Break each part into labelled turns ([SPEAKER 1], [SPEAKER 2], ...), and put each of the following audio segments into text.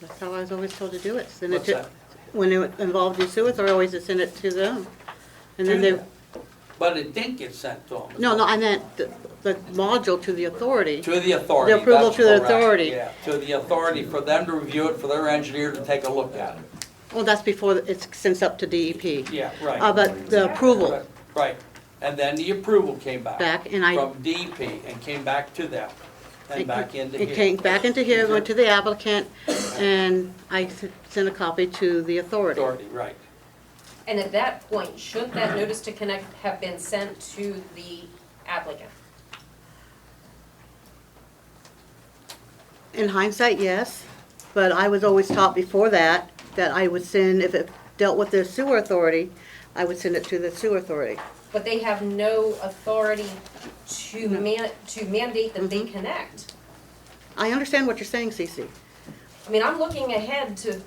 [SPEAKER 1] That's how I was always told to do it, send it
[SPEAKER 2] What's
[SPEAKER 1] to,
[SPEAKER 2] that?
[SPEAKER 1] when it involved the sewer always to send it to them. And then
[SPEAKER 2] Do
[SPEAKER 1] they,
[SPEAKER 2] But it didn't get sent to them.
[SPEAKER 1] no, no, I meant the, the module to the authority.
[SPEAKER 2] To the authority.
[SPEAKER 1] The approval
[SPEAKER 2] that's
[SPEAKER 1] to the
[SPEAKER 2] correct,
[SPEAKER 1] authority.
[SPEAKER 2] Yeah, to the authority, for them to review it, for their engineer to take a look at it.
[SPEAKER 1] Well, that's before it sends up to DEP.
[SPEAKER 2] Yeah,
[SPEAKER 1] Uh,
[SPEAKER 2] right.
[SPEAKER 1] but the approval
[SPEAKER 2] Right, Right, and then the approval came back.
[SPEAKER 1] back, and I,
[SPEAKER 2] From DP and came back to them, and
[SPEAKER 1] It-
[SPEAKER 2] back into here.
[SPEAKER 1] it came back into here, went to the applicant, and I s- sent a copy to the authority.
[SPEAKER 2] Authority, right.
[SPEAKER 3] And at that point, should that notice to connect have been sent to the applicant?
[SPEAKER 1] In hindsight, yes, but I was always taught before that, that I would send, if it dealt with the sewer authority, I would send it to the sewer authority.
[SPEAKER 3] But they have no authority to man, to mandate that they connect.
[SPEAKER 1] I understand what you're saying, Cece.
[SPEAKER 3] I mean, I'm looking ahead to,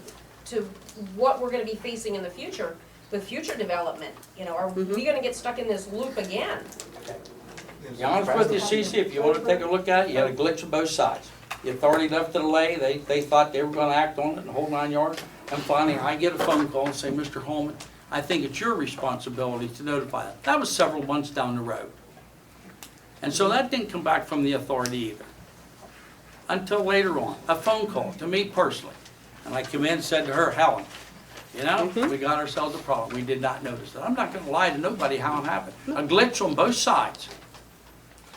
[SPEAKER 3] to what we're gonna be facing in the future with future development. You know, are we gonna get stuck in this loop again?
[SPEAKER 2] Be honest with you, Cece, if you wanna take a look at it, you had a glitch on both sides. The authority left it lay, they, they thought they were gonna act on it and hold nine yards. And finally, I get a phone call and say, Mr. Holman, I think it's your responsibility to notify them. That was several months down the road. And so that didn't come back from the authority either. Until later on, a phone call to me personally. And I come in and said to her, Helen, you know, we got ourselves a problem. We did not notice it. I'm not gonna lie to nobody how it happened. A glitch on both sides.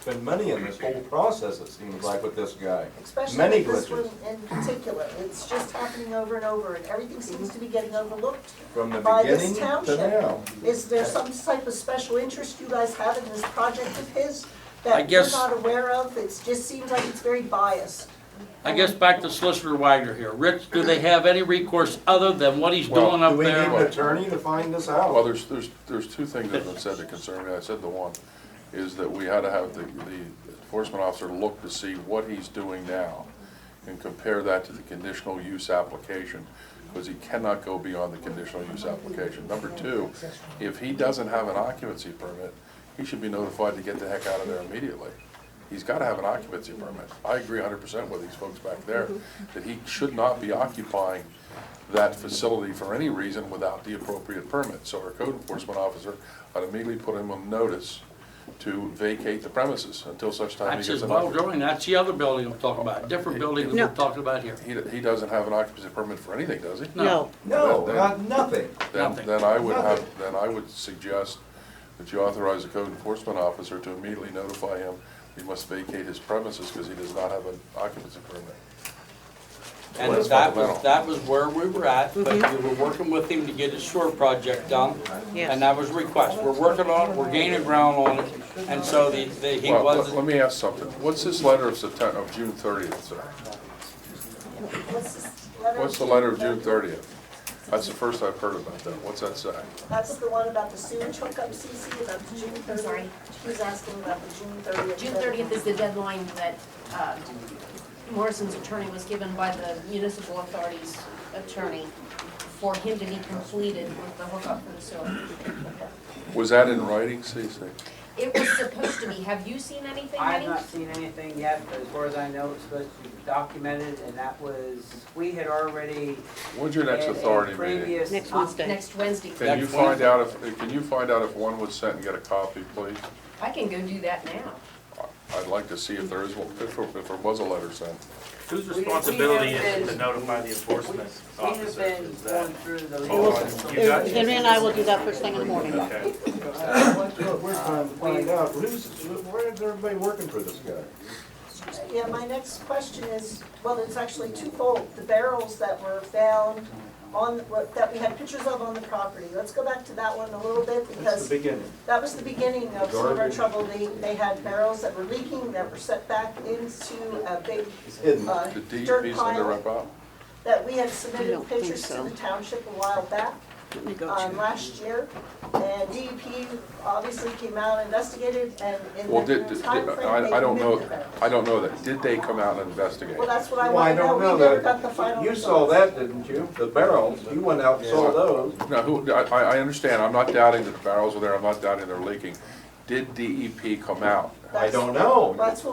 [SPEAKER 4] Been many in this whole process, it seems like, with this guy.
[SPEAKER 5] Especially
[SPEAKER 4] Many
[SPEAKER 5] this one
[SPEAKER 4] glitches,
[SPEAKER 5] in particular, it's just happening over and over, and everything
[SPEAKER 3] Mm-hmm.
[SPEAKER 5] seems to be getting overlooked.
[SPEAKER 4] from the
[SPEAKER 5] by this
[SPEAKER 4] beginning to
[SPEAKER 5] township.
[SPEAKER 4] now.
[SPEAKER 5] Is there some type of special interest you guys have in this project of his
[SPEAKER 2] I
[SPEAKER 5] that we're
[SPEAKER 2] guess-
[SPEAKER 5] not aware of? It just seems like it's very biased.
[SPEAKER 2] I guess back to Solicitor Wagner here. Rich, do they have any recourse other than what he's doing
[SPEAKER 4] Do
[SPEAKER 2] up
[SPEAKER 4] we need an
[SPEAKER 2] there?
[SPEAKER 4] attorney to find this
[SPEAKER 6] Well,
[SPEAKER 4] out?
[SPEAKER 6] there's, there's, there's two things that have been said that concern me. I said the one is that we had to have the, the enforcement officer look to see what he's doing now and compare that to the conditional use application, because he cannot go beyond the conditional use application. Number two, if he doesn't have an occupancy permit, he should be notified to get the heck out of there immediately. He's gotta have an occupancy permit. I agree hundred percent with these folks back there, that he should not be occupying that facility for any reason without the appropriate permit. So our code enforcement officer ought to immediately put him on notice to vacate the premises until such time he
[SPEAKER 2] That's
[SPEAKER 6] gets
[SPEAKER 2] his
[SPEAKER 6] an
[SPEAKER 2] ball
[SPEAKER 6] occupancy.
[SPEAKER 2] drawing. That's the other building I'm talking about, different building than we're
[SPEAKER 1] No.
[SPEAKER 2] talking about here.
[SPEAKER 6] He, he doesn't have an occupancy permit for anything, does he?
[SPEAKER 2] No.
[SPEAKER 1] No,
[SPEAKER 4] No,
[SPEAKER 6] Then-
[SPEAKER 4] not, nothing.
[SPEAKER 6] Then,
[SPEAKER 2] Nothing.
[SPEAKER 6] then I would have, then I would suggest that you authorize the code enforcement officer to immediately notify him he must vacate his premises because he does not have an occupancy permit.
[SPEAKER 2] And
[SPEAKER 6] Well, that's
[SPEAKER 2] that was,
[SPEAKER 6] fundamental.
[SPEAKER 2] that was where we were at, but we were working with him to get his sewer project done.
[SPEAKER 1] Mm-hmm. Yes.
[SPEAKER 2] And that was a request. We're working on it, we're gaining ground on it, and so the, the, he
[SPEAKER 6] Well, let- let
[SPEAKER 2] wasn't,
[SPEAKER 6] me ask something. What's this letter of September, of June thirtieth, sir?
[SPEAKER 5] What's this letter?
[SPEAKER 6] What's the letter of June thirtieth? That's the first I've heard about that. What's that say?
[SPEAKER 5] That's the one about the sewage hookup, CC, about the June thirtieth.
[SPEAKER 3] sorry.
[SPEAKER 5] He was asking about the June thirtieth.
[SPEAKER 3] June thirtieth is the deadline that uh, Morrison's attorney was given by the municipal authority's attorney for him to be completed with the hookup for the sewer.
[SPEAKER 6] Was that in writing, Cece?
[SPEAKER 3] It was supposed to be, have you seen anything,
[SPEAKER 7] I have
[SPEAKER 3] Eddie?
[SPEAKER 7] not seen anything yet, but as far as I know, it's supposed to be documented, and that was, we had already.
[SPEAKER 6] When's your next
[SPEAKER 7] had a
[SPEAKER 6] authority meeting?
[SPEAKER 7] previous-
[SPEAKER 1] next Wednesday.
[SPEAKER 3] Next Wednesday.
[SPEAKER 6] Can you
[SPEAKER 2] Next
[SPEAKER 6] find out if, eh, can you find out if one was sent and get a copy, please?
[SPEAKER 3] I can go do that now.
[SPEAKER 6] I'd like to see if there is, one- if there if there was a letter sent.
[SPEAKER 8] Whose
[SPEAKER 7] have
[SPEAKER 8] responsibility
[SPEAKER 7] been-
[SPEAKER 8] is it to notify the enforcement
[SPEAKER 7] We have
[SPEAKER 8] officer?
[SPEAKER 7] been
[SPEAKER 8] Is
[SPEAKER 7] going
[SPEAKER 8] that?
[SPEAKER 7] through the
[SPEAKER 8] Oh,
[SPEAKER 7] legal system.
[SPEAKER 8] you got
[SPEAKER 1] Henry and I will do that first thing in the morning.
[SPEAKER 8] Okay.
[SPEAKER 4] We're trying to find out, who's, where is everybody working for this guy?
[SPEAKER 5] Yeah, my next question is, well, it's actually twofold. The barrels that were found on, that we had pictures of on the property. Let's go back to that one a little bit
[SPEAKER 4] That's
[SPEAKER 5] because
[SPEAKER 4] the beginning.
[SPEAKER 5] that was the beginning of some of our
[SPEAKER 4] Garbage.
[SPEAKER 5] trouble. They, they had barrels that were leaking, that were set back into a big
[SPEAKER 4] It's hidden.
[SPEAKER 5] uh,
[SPEAKER 6] The
[SPEAKER 5] dirt
[SPEAKER 6] DEP's under
[SPEAKER 5] pile
[SPEAKER 6] wrap up?
[SPEAKER 5] that we had
[SPEAKER 1] I don't
[SPEAKER 5] submitted
[SPEAKER 1] think
[SPEAKER 5] pictures to
[SPEAKER 1] so.
[SPEAKER 5] the township a while back
[SPEAKER 1] Let me go
[SPEAKER 5] um,
[SPEAKER 1] check.
[SPEAKER 5] last year. And DEP obviously came out, investigated, and in
[SPEAKER 6] Well,
[SPEAKER 5] that
[SPEAKER 6] did, did-
[SPEAKER 5] timeframe,
[SPEAKER 6] I,
[SPEAKER 5] they
[SPEAKER 6] I don't
[SPEAKER 5] removed the
[SPEAKER 6] know,
[SPEAKER 5] barrels.
[SPEAKER 6] I don't know that. Did they come out and investigate?
[SPEAKER 5] Well, that's what I
[SPEAKER 4] Well, I
[SPEAKER 5] want to know.
[SPEAKER 4] don't know
[SPEAKER 5] We never
[SPEAKER 4] that.
[SPEAKER 5] got the final
[SPEAKER 4] You saw
[SPEAKER 5] results.
[SPEAKER 4] that, didn't you? The barrels, you went out and saw those.
[SPEAKER 6] No, who, I, I I understand. I'm not doubting that the barrels were there. I'm not doubting they're leaking. Did DEP E come out?
[SPEAKER 4] I don't know.
[SPEAKER 5] That's what